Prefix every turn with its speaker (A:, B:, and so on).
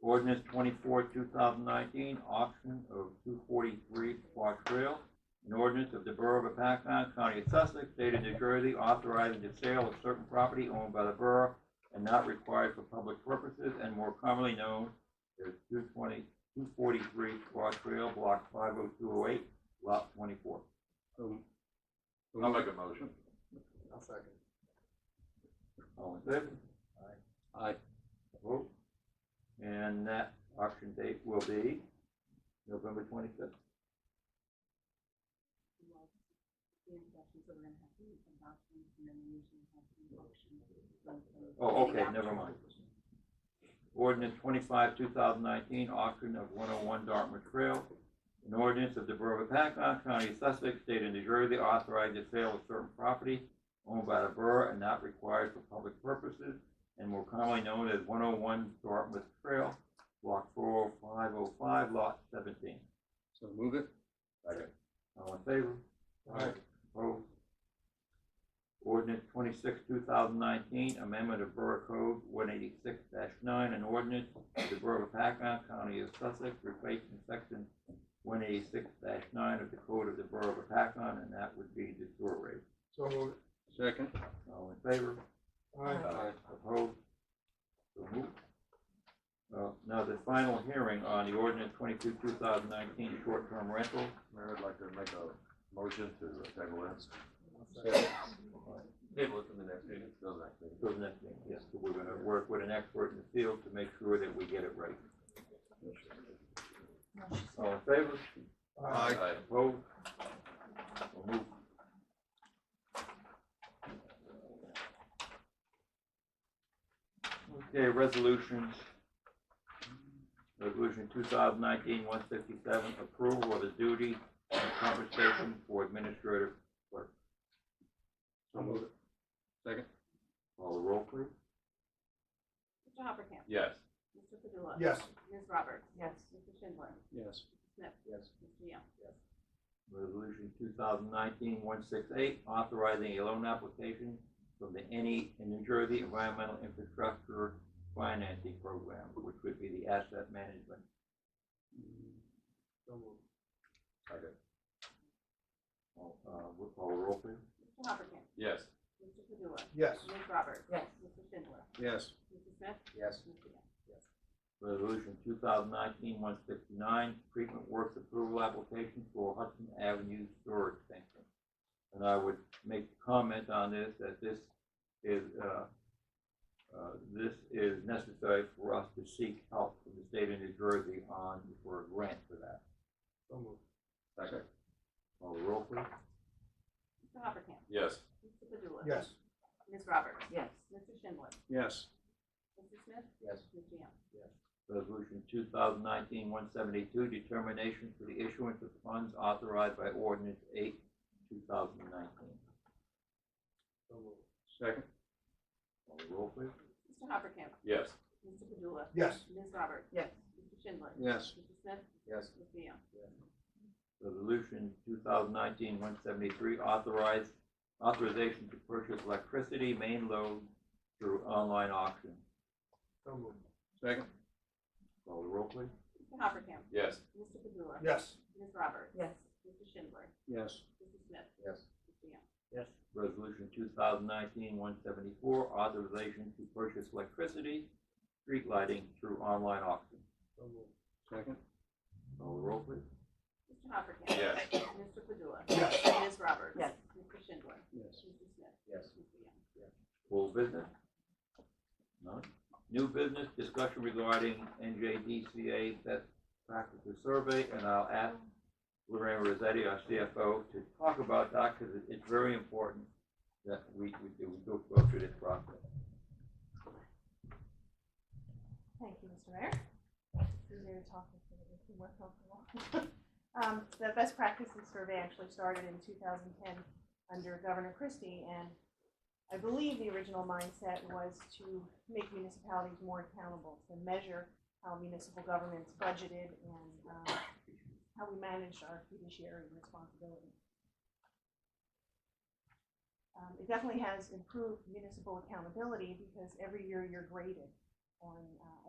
A: Ordinance twenty-four, two thousand nineteen, auction of two forty-three Park Trail. An ordinance of the Borough of Paxton, County of Sussex, State of New Jersey, authorizing the sale of certain property owned by the borough and not required for public purposes and more commonly known as 220 243 Park Trail, block five oh two oh eight, lot twenty-four.
B: So- so
C: I'll
B: moved.
C: make a motion.
D: I'll second.
A: All in favor?
B: Aye.
A: Vote. And that auction date will be November twenty-fifth.
E: like the introductions that we're gonna have to do from documents and then we usually have to do motions.
A: Oh, okay, never mind. Ordinance twenty-five, two thousand nineteen, auction of one oh one Dartmouth Trail. An ordinance of the Borough of Hancock, County of Sussex, State of New Jersey, authorizing the sale of certain property owned by the borough and not required for public purposes, and more commonly known as one oh one Dartmouth Trail, block four oh five oh five, lot seventeen.
B: So move it.
A: All in favor?
D: Aye.
A: Opposed? Ordinance twenty-six, two thousand nineteen, amendment of Borough Code one eighty-six nine, an ordinance of the Borough of Paxton, County of Sussex, replacing section one eighty-six nine of the Code of the Borough of Paxton, and that would be the sewer rate.
D: So moved.
B: Second.
A: All in favor?
D: Aye.
B: Aye.
A: Opposed? So moved. Uh, now the final hearing on the ordinance twenty-two, two thousand nineteen, short-term rental.
C: Mayor, I'd like to make a motion to table it.
B: Second.
C: Table it for the next meeting. Till the next meeting.
A: So the next thing, yes, so we're gonna work with an expert in the field to make sure that we get it right. All in favor?
D: Aye.
A: Opposed? So moved. Okay, resolutions. Resolution 2019-157, approval of the duty and compensation for administrative.
B: So move it. Second.
A: Call the roll, please.
E: Mr. Hoppercamp?
C: Yes.
E: Mr. Padula?
D: Yes.
E: Ms. Roberts? Yes. Mr. Schindler?
B: Yes.
E: Smith?
D: Yes.
E: Mr. Young?
A: Resolution 2019-168, authorizing a loan application from the NE in New Jersey Environmental Infrastructure Financing Program, which would be the asset management.
D: So moved.
A: Uh, we'll call the roll, please.
E: Mr. Hoppercamp?
C: Yes.
E: Mr. Padula?
D: Yes.
E: Ms. Roberts? Yes. Mr. Schindler?
B: Yes.
E: Mr. Smith?
D: Yes.
E: Mr. Young?
A: Resolution 2019-169, treatment works approval application for Hudson Avenue sewer extension. And I would make comment on this, that this is, uh, uh, this is necessary for us to seek help from the state of New Jersey on, for a grant for that.
D: So moved.
C: Second.
A: Call the roll, please.
E: Mr. Hoppercamp?
C: Yes.
E: Mr. Padula?
D: Yes.
E: Ms. Roberts? Yes. Mr. Schindler?
B: Yes.
E: Mr. Smith?
D: Yes.
E: Mr. Young?
A: Resolution 2019-172, determination for the issuance of funds authorized by ordinance 8, 2019.
D: So moved.
B: Second.
A: Call the roll, please.
E: Mr. Hoppercamp?
C: Yes.
E: Mr. Padula?
D: Yes.
E: Ms. Roberts? Yes. Mr. Schindler?
B: Yes.
E: Mr. Smith?
D: Yes.
E: Mr. Young?
A: Resolution 2019-173, authorize, authorization to purchase electricity main load through online auction.
D: So moved.
B: Second.
A: Call the roll, please.
E: Mr. Hoppercamp?
C: Yes.
E: Mr. Padula?
D: Yes.
E: Ms. Roberts? Yes. Mr. Schindler?
B: Yes.
E: Mr. Smith?
D: Yes.
E: Mr. Young?
A: Resolution 2019-174, authorization to purchase electricity, street lighting through online auction.
D: So moved.
B: Second.
A: Call the roll, please.
E: Mr. Hoppercamp?
C: Yes.
E: Mr. Padula?
D: Yes.
E: Ms. Roberts? Yes. Mr. Schindler?
B: Yes.
E: Mr. Smith?
D: Yes.
E: Mr. Young?
A: Full business? None. New business discussion regarding NJDCA best practices survey, and I'll ask Lorraine Rossetti, our CFO, to talk about that, because it's very important that we, we do, we go go through this process.
F: Thank you, Mr. Mayor. It's easier to talk if you can work on the wall. Um, the best practices survey actually started in two thousand ten under Governor Christie, and I believe the original mindset was to make municipalities more accountable, to measure how municipal governments budgeted and, um, how we managed our fiduciary responsibility. Um, it definitely has improved municipal accountability because every year you're graded on, uh,